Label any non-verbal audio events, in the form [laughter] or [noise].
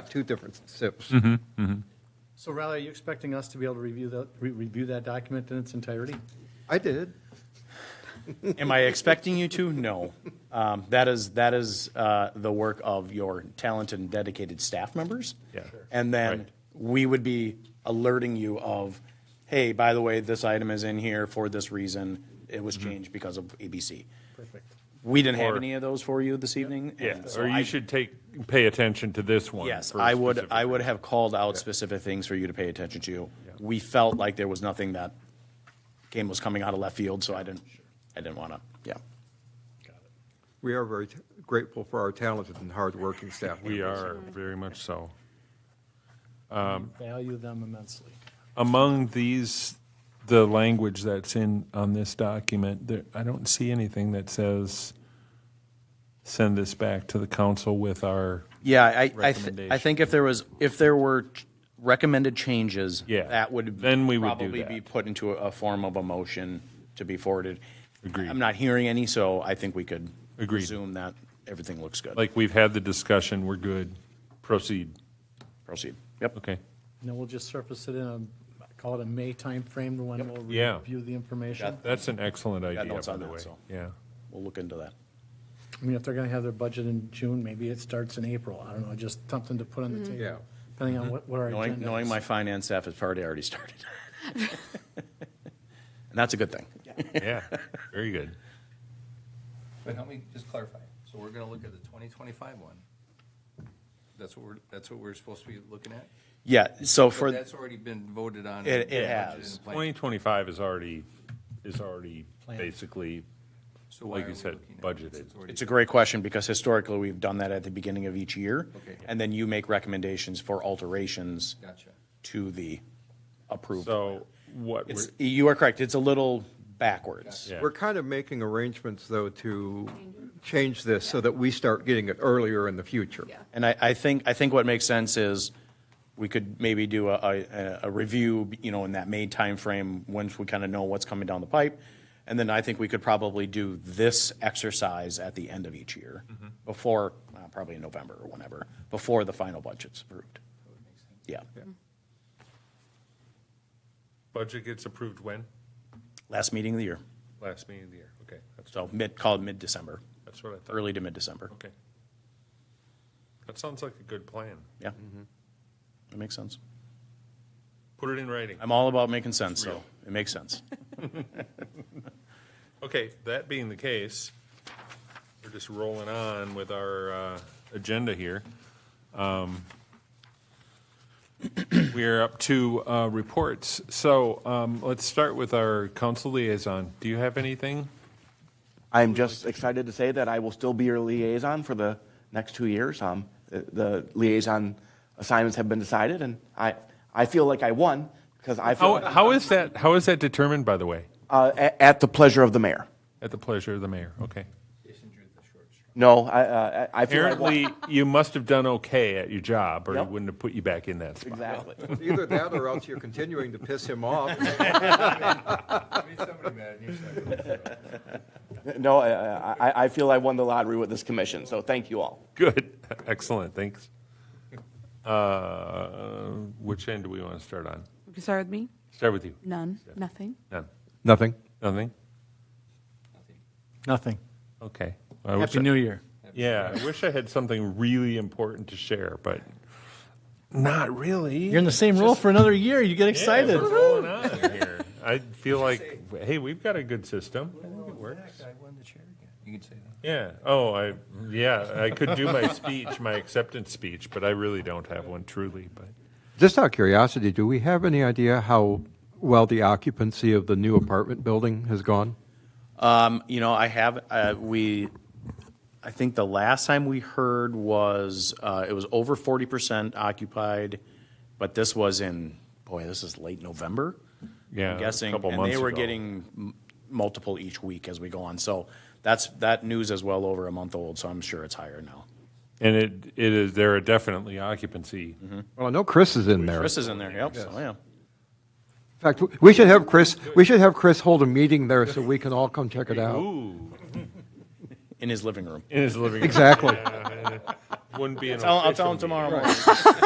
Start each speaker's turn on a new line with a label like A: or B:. A: got two different SIPs.
B: Mm-hmm.
C: So Riley, are you expecting us to be able to review that, re- review that document in its entirety?
A: I did.
D: Am I expecting you to? No. Um, that is that is uh, the work of your talented and dedicated staff members.
B: Yeah. Sure.
D: And then
B: Right.
D: we would be alerting you of, hey, by the way, this item is in here for this reason. It was changed because of ABC.
C: Perfect.
D: We didn't have
B: Mm-hmm. Or-
D: any of those for you this evening.
B: Yeah,
D: and so
B: or you
D: I-
B: should take, pay attention to this one.
D: Yes,
B: for
D: I would.
B: specific-
D: I would have called out specific things for you to pay attention to. We felt like there was nothing that came was coming out of left field, so I didn't. I didn't want to. Yeah.
A: We are very grateful for our talented and hardworking staff.
B: We are, very much so.
C: Value them immensely.
B: Among these, the language that's in, on this document, there, I don't see anything that says, send this back to the council with our,
D: Yeah, I, I, th- I
B: Recommendation.
D: think if there was, if there were ch- recommended changes,
B: Yeah,
D: that would
B: then we would do
D: probably be
B: that.
D: put into a, a form of a motion to be forwarded.
B: Agreed.
D: I'm not hearing any, so I think we could
B: Agreed.
D: assume that everything looks good.
B: like, we've had the discussion, we're good, proceed.
D: proceed. Yep.
B: Okay,
C: And then we'll just surface it in a, call it a May timeframe when we'll
B: Yeah.
C: review the information.
B: that's an excellent idea,
D: notes
B: by
D: on
B: the
D: that,
B: way,
D: so.
B: yeah.
D: We'll look into that.
C: I mean, if they're gonna have their budget in June, maybe it starts in April. I don't know, just something to put on the
A: Yeah.
C: table, depending on what, what our agenda
D: Mm-hmm. Knowing,
C: is.
D: knowing my finance staff has already already
E: [laughs]
D: started, and that's a good thing.
B: [laughs] Yeah, very good.
E: But help me just clarify. So we're gonna look at the twenty twenty-five one. That's what we're, that's what we're supposed to be looking at?
D: Yeah. So
E: But
D: for
E: that's already been voted on.
D: It- it
E: budget and
D: has.
E: plan.
B: 2025 is already, is already basically,
E: So why
B: like
E: are
B: you
E: we
B: said,
E: looking at it since
B: budgeted.
E: it's already-
D: It's a great question because historically we've done that at the beginning of each year.
E: Okay.
D: And then you make recommendations for alterations.
E: Gotcha.
D: To the approved.
B: So what,
D: It's,
B: we're-
D: you are correct. It's a little backwards.
B: Yeah.
A: We're kind of making arrangements, though, to change this so that we start getting it earlier in the future.
F: Yeah.
D: And I, I think, I think what makes sense is we could maybe do a, a, a review, you know, in that May timeframe, once we kind of know what's coming down the pipe. And then I think we could probably do this exercise at the end of each year,
B: Mm-hmm.
D: before, uh, probably in November or whenever, before the final budget's approved. Yeah,
B: budget gets approved when?
D: last meeting of the year,
B: Last meeting of the year, okay. That's
D: so mid, call it mid-December,
B: That's what I thought.
D: early to mid-December.
B: Okay. That sounds like a good plan.
D: Yeah,
B: Mm-hmm.
D: that makes sense.
B: Put it in writing.
D: I'm all about making sense, so
B: Real.
D: it makes sense.
B: Okay, that being the case, we're just rolling on with our uh, agenda here. Um, [coughs] We're up to uh, reports. So um, let's start with our council liaison. Do you have anything?
G: I'm just excited to say that I will still be your liaison for the next two years. Um, the, the liaison assignments have been decided, and I, I feel like I won because I feel
B: How, how is that, how is that determined, by the way?
G: uh, at, at the pleasure of the mayor.
B: At the pleasure of the mayor, okay.
E: Jason drew the short straw.
G: No, I, uh, I I feel
B: Apparently,
G: I won.
B: [laughs] you must have done okay at your job, or he
G: Yep.
B: wouldn't have put you back in that spot.
A: [laughs]
G: exactly. [laughs]
A: Either that or else you're continuing to piss him off.
E: I mean, somebody mad and you're [laughs] second.
G: no, I, I, I- I feel I won the lottery with this commission. So thank you all.
B: Good, [laughs] excellent, thanks. Uh, Which end do we want to start on?
F: You can start with me?
B: Start with you.
F: None, nothing.
B: None.
A: [laughs] Nothing.
B: Nothing?
C: Nothing.
B: Okay.
C: Happy New Year.
B: Yeah, I wish I had something really important to share, but not really.
C: You're in the
D: [laughs]
C: same role for another year. You get excited.
B: What's going on here? I feel like, hey, we've got a good system. I think it works.
E: I won the chair again. You can say that.
B: Yeah. Oh, I, yeah, I could do my speech, my acceptance speech, but I really don't have one truly, but.
A: Just out of curiosity, do we have any idea how well the occupancy of the new apartment building has gone?
D: Um, You know, I have, uh, we, I think the last time we heard was, uh, it was over 40% occupied, but this was in, boy, this is late November.
B: Yeah,
D: I'm
B: a
D: guessing,
B: couple
D: and they
B: months
D: were
B: ago.
D: getting m- multiple each week as we go on. So that's, that news is well over a month old, so I'm sure it's higher now.
B: And it, it is, there are definitely occupancy.
D: Mm-hmm.
A: Well, I know Chris is in there.
D: Chris is in there, yep, so yeah.
A: In fact, w- we should have Chris, we should have Chris hold a meeting there so we can all come check it out.
B: Ooh,
D: In his living room.
B: in his living room.
A: Exactly.
B: Yeah, yeah. wouldn't be an
D: I'll, I'll
B: official
D: tell him
B: meeting.
D: tomorrow morning.